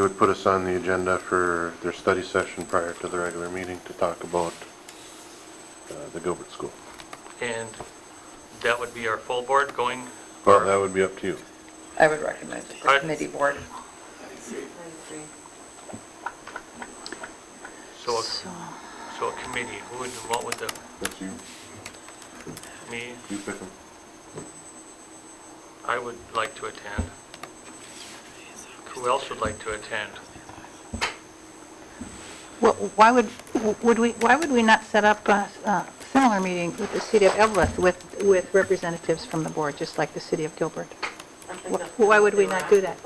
put us on the agenda for their study session prior to the regular meeting to talk about uh, the Gilbert School. And that would be our full board going? Well, that would be up to you. I would recommend it Alright. the committee board. So, so a committee, who would, what would the, That's you. me, You pick them. I would like to attend. Who else would like to attend? Well, Why would, would we, why would we not set up a a similar meeting with the city of Evlith with, with representatives from the board, just like the city of Gilbert? Wh- why would we not do that?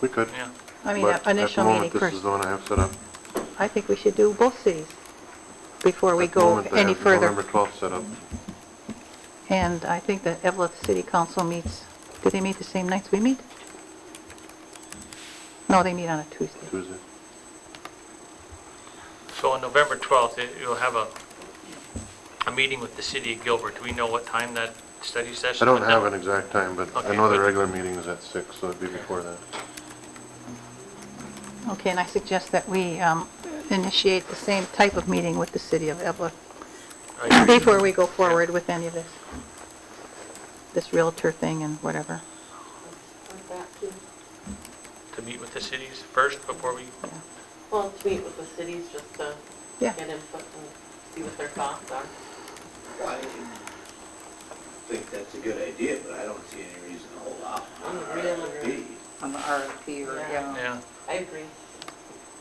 We could. Yeah, I mean, But an initial meeting At the moment, this is first. the one I have set up. I think we should do both cities before we At the go moment, I any have November further. 12th set up. And I think that Evlith City Council meets, do they meet the same nights we meet? No, they meet on a Tuesday. Tuesday. so on November 12th, it- you'll have a, a meeting with the city of Gilbert. Do we know what time that study I session? don't have an exact time, but I Okay, know the but- regular meeting is at six, so it'd be before that. Okay, and I suggest that we um, initiate the same type of meeting with the city of Evlith Right. before we go forward with any of this, this Realtor thing and whatever. To meet with the cities first before we, Well, to meet with the cities just to Yeah. get input and see what their thoughts are. I think that's a good idea, but I don't see any reason to hold off on Mm, our we don't agree. RFP. On the RFP or, Yeah. yeah. yeah, I agree.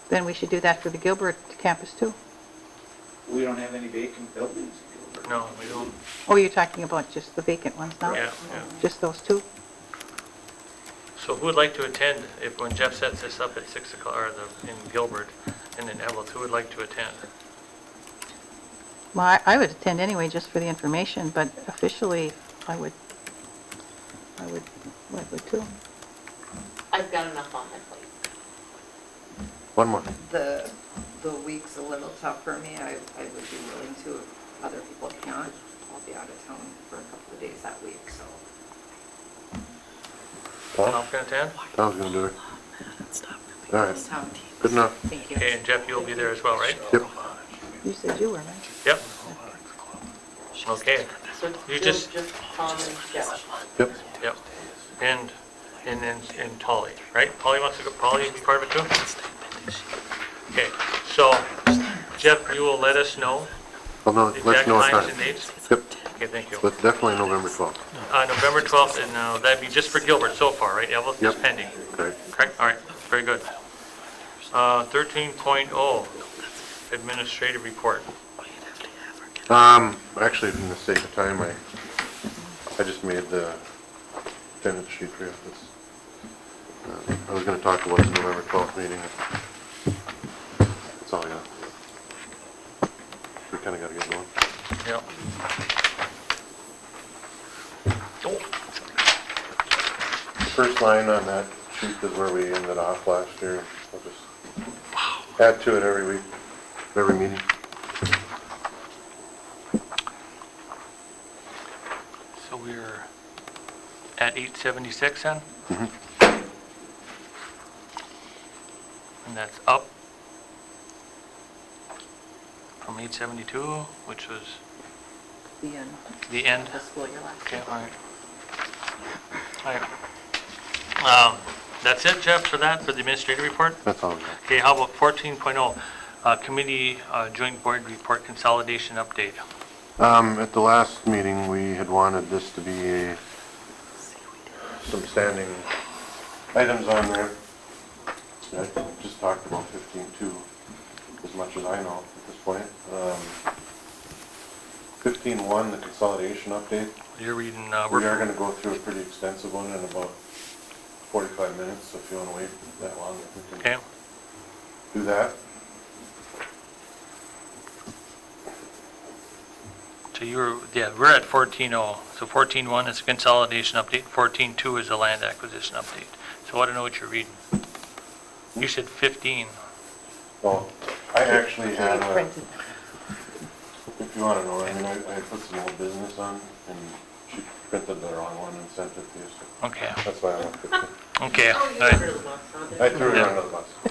Then we should do that for the Gilbert campus too. We don't have any vacant buildings in Gilbert. no, we don't, Oh, you're talking about just the vacant ones now? yeah, yeah. Just those two? So who would like to attend, if, when Jeff sets this up at 6 o'clock, or the, in Gilbert, and then Evelyn, who would like to attend? Well, I- I would attend anyway, just for the information, but officially, I would, I would, I would too. I've got enough on my plate. One more. The, the week's a little tough for me. I, I would be willing to if other people can't. I'll be out of town for a couple of days that week, so. Paul? Tom can attend? Tom's gonna do it. All right, good enough. Thank you. Okay, and Jeff, you'll be there as well, right? Yep. You said you were, right? Yep. Okay, So You you'll just- just Tom and Jeff. Yep. yep. And, and then, and Polly, right? Polly wants to go, Polly, you part of it too? Okay, so Jeff, you will let us know Well, no, the let's exact know a times time. and dates? Yep, Okay, thank you. but definitely November 12th. Uh, November 12th, and uh, that'd be just for Gilbert so far, right? Evelyn is Yep. pending. Great. Correct, all right, very good. Uh, 13.0, administrative report. Um, actually, for the sake of time, I, I just made the attendance sheet for you. That's- uh, I was gonna talk about the November 12th meeting. That's all I got. We kinda gotta get going. Yep. Oh, First line on that sheet is where we ended off last year. I'll just add to it every week, every meeting. So we're at 876 then? And that's up from 872, which was The end. the end. The school year last Okay, year. all right. All right. Um, That's it, Jeff, for that, for the administrative report? That's all I got. Okay, how about 14.0, uh, committee uh, joint board report consolidation update? Um, at the last meeting, we had wanted this to be a, some standing items on there. I just talked about fifteen two, as much as I know at this point. Um, fifteen one, the consolidation update. You're reading, uh, We are we're, gonna go through a pretty extensive one in about forty-five minutes, so if you wanna wait that long, we okay? can do that. So you were, yeah, we're at 14.0. So 14.1 is consolidation update, 14.2 is the land acquisition update. So I don't know what you're reading. You said 15. Well, I actually had a. Printed. If you want to know, I mean, I, I put some old business on, and she printed the wrong one and sent it to you, so Okay, that's why I left it. okay. Oh, you all right. remember the last one, didn't you? I threw it under the bus.